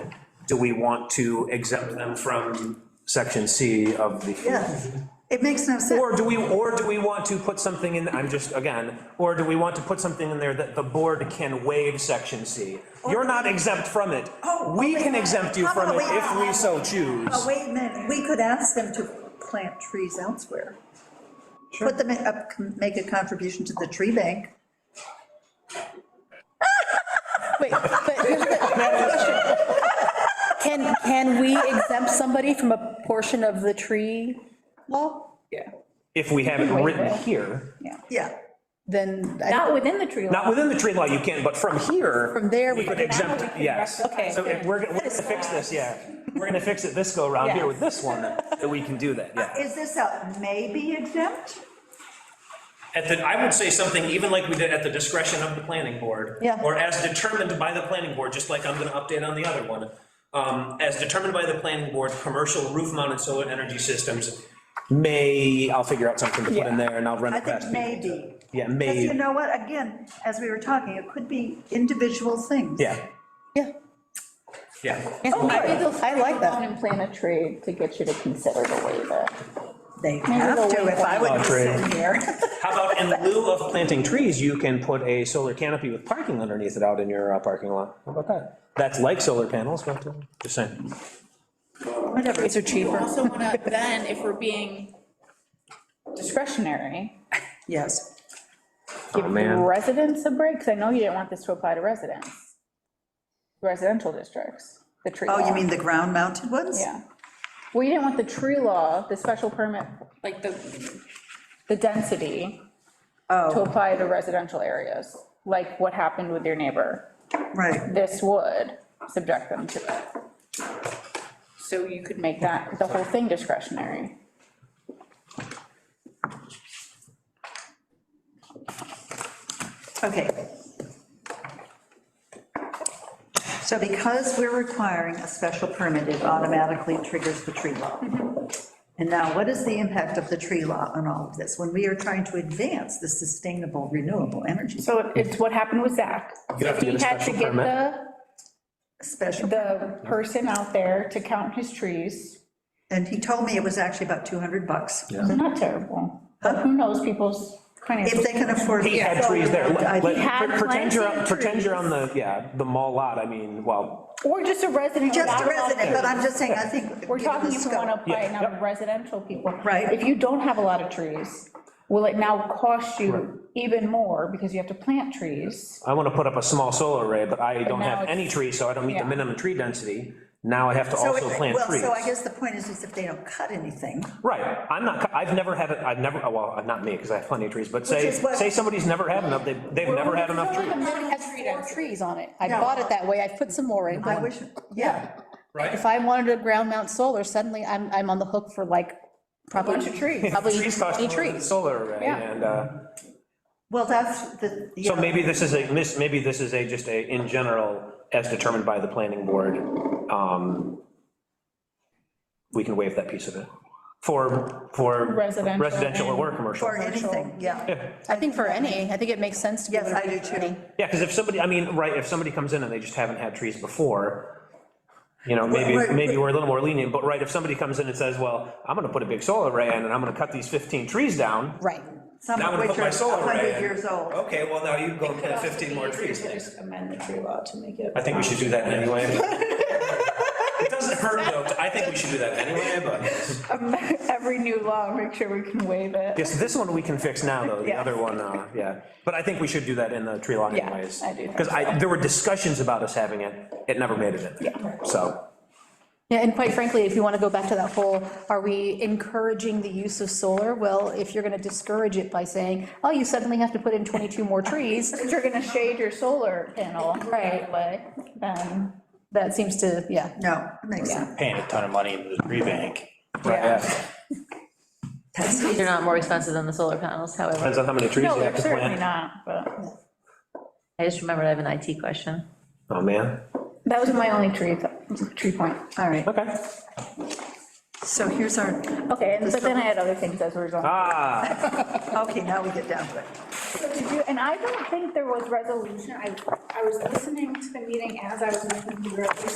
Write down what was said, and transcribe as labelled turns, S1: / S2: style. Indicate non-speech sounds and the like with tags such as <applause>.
S1: do we want to exempt them from section C of the?
S2: Yeah, it makes no sense.
S1: Or do we, or do we want to put something in, I'm just, again, or do we want to put something in there that the board can waive section C? You're not exempt from it.
S2: Oh,
S1: We
S2: okay.
S1: can exempt you
S2: How
S1: from
S2: about
S1: it
S2: we-
S1: if we so choose.
S2: Oh, wait a minute, we could ask them to plant trees elsewhere. Put them in- up, make a contribution to the tree bank.
S3: <laughs> Wait, but here's the- I have a question. Can, can we exempt somebody from a portion of the tree law?
S4: Yeah.
S1: If we have it
S3: Waive
S1: written
S3: it.
S1: here,
S2: Yeah,
S3: Then, I-
S4: Not within the tree
S1: not
S4: line.
S1: within the tree law, you can, but from here.
S3: From there,
S1: We
S3: we
S1: could
S3: can-
S1: exempt, it, yes.
S4: Okay.
S1: So if we're, gonna- we're gonna fix this, yeah. We're gonna fix it this go around here with this one, that we can do that, yeah.
S2: is this a maybe exempt?
S1: At the, I would say something even like we did at the discretion of the planning board.
S3: Yeah.
S1: Or as determined by the planning board, just like I'm gonna update on the other one. Um, as determined by the planning board, commercial roof mounted solar energy systems may, I'll figure out something to put in there and I'll run
S2: I
S1: it past
S2: think
S1: people.
S2: maybe.
S1: Yeah,
S2: Because you
S1: may,
S2: know what, again, as we were talking, it could be individual things.
S1: yeah,
S3: yeah.
S1: yeah.
S5: Oh,
S3: Maybe they'll- I like that.
S5: And plan a trade to get you to consider the waiver.
S2: They have to, if I would be sitting here.
S1: How about in lieu of planting trees, you can put a solar canopy with parking underneath it out in your uh, parking lot? How about that? That's like solar panels, but uh, just saying.
S2: Whatever.
S3: These are cheaper.
S5: Also wanna, then if we're being discretionary,
S2: Yes.
S1: Oh,
S5: give
S1: man.
S5: residents a break, because I know you didn't want this to apply to residents. Residential districts, the tree
S2: Oh, you
S5: law.
S2: mean the ground mounted ones?
S5: Yeah. Well, you didn't want the tree law, the special permit, like the, the density to
S2: Oh,
S5: apply to residential areas, like what happened with your neighbor.
S2: right.
S5: this would subject them to it. So you could make that, the whole thing discretionary.
S2: Okay. So because we're requiring a special permit, it automatically triggers the tree law.
S5: Mm-hmm.
S2: And now, what is the impact of the tree law on all of this, when we are trying to advance the sustainable renewable energy?
S5: So it's what happened with Zach.
S1: You have to get a
S5: He had to
S1: special
S5: get
S1: permit.
S5: the,
S2: Special,
S5: the person out there to count his trees.
S2: and he told me it was actually about 200 bucks,
S5: Not terrible, but who knows people's
S2: if
S5: finances.
S2: they can afford.
S1: He had
S2: So-
S1: trees there.
S2: I-
S1: Let-
S5: He had
S1: Pretend you're,
S5: planted
S1: pretend you're on the, yeah, the mall lot, I mean, well,
S5: Or just a resident.
S2: Just
S5: without
S2: a
S5: lot of
S2: resident,
S5: trees.
S2: but I'm just saying, I think. given
S5: We're
S2: the
S5: talking if we
S2: scope-
S5: want to apply it
S1: Yeah,
S5: now to residential people.
S2: Right.
S5: If you don't have a lot of trees, will it now cost you even more because you have to plant trees?
S1: I want to put up a small solar array, but I don't
S5: now
S1: have
S5: it's-
S1: any trees, so I don't meet the
S5: yeah.
S1: minimum tree density. Now I have to
S2: So
S1: also
S2: if-
S1: plant trees.
S2: Well, so I guess the point is, is if they don't cut anything,
S1: Right, I'm not, cu- I've never had, it. I've never, oh, well, not me, because I have plenty of trees, but say,
S2: is what-
S1: say somebody's never had enough, they've, they've never had enough trees.
S3: Has four trees on it. I bought it that way. I put some more in.
S2: I
S5: Um,
S2: wish, yeah,
S3: If I wanted to ground mount solar, suddenly I'm, I'm on the hook for like, probably. trees. Probably
S1: Trees cost
S3: 20
S1: more than a
S3: trees.
S1: solar array,
S5: Yeah.
S1: and, uh,
S2: well, that's the.
S1: so
S2: yeah.
S1: maybe this is a, this- maybe this is a, just a, in general, as determined by the planning board, um, we can waive that piece of it, for, for.
S5: Residential
S1: Residential or
S5: and-
S1: commercial.
S2: Or anything, yeah,
S3: I think for any, I think it makes sense to. give
S2: yes,
S3: it a
S2: I do too.
S3: reading.
S1: Yeah, because if somebody, I mean, right, if somebody comes in and they just haven't had trees before, you know, maybe,
S2: Right, right,
S1: maybe
S2: right.
S1: we're a little more lenient, but right, if somebody comes in and says, well, I'm gonna put a big solar array in and I'm gonna cut these 15 trees down.
S3: Right.
S2: Some
S1: Now I'm
S2: of
S1: gonna
S2: which
S1: put
S2: are
S1: my solar array
S2: 100
S1: in. Oh.
S2: years old.
S1: Okay, well, now you go and plant 15 more trees.
S6: Just amend the tree law to make it.
S1: I think we should do that anyway.
S5: <laughs>
S1: It doesn't hurt though, I think we should do that anyway,
S3: <laughs>
S1: but.
S5: Every new law, make sure we can waive it.
S1: Yes, this one we can fix now though, the
S5: Yeah.
S1: other one, uh, yeah, but I think we should do that in the tree law
S5: Yeah,
S1: anyways.
S5: I do think
S1: Because I, there were discussions about us having it, it never made it in, there. so.
S3: Yeah, and quite frankly, if you want to go back to that whole, are we encouraging the use of solar? Well, if you're going to discourage it by saying, oh, you suddenly have to put in 22 more trees,
S5: If <laughs> you're gonna shade your solar panel right away, then.
S3: that seems to, yeah.
S2: No, it makes sense.
S7: paying a ton of money into the tree bank.
S1: Yeah.
S2: That's-
S8: They're not more expensive than the solar panels, however.
S1: Depends on how many trees
S5: No,
S1: you have to
S5: certainly
S1: plant.
S5: not, but
S8: I just remembered I have an IT question.
S1: Oh, man.
S5: that was my only tree, tree point.
S2: All right,
S1: Okay.
S2: so here's our,
S5: Okay, and but then I had other things as a result.
S1: Ah,
S2: okay, now we get down to it.
S5: So did you- And I don't think there was resolution. I, I was listening to the meeting as I was listening to the resolution.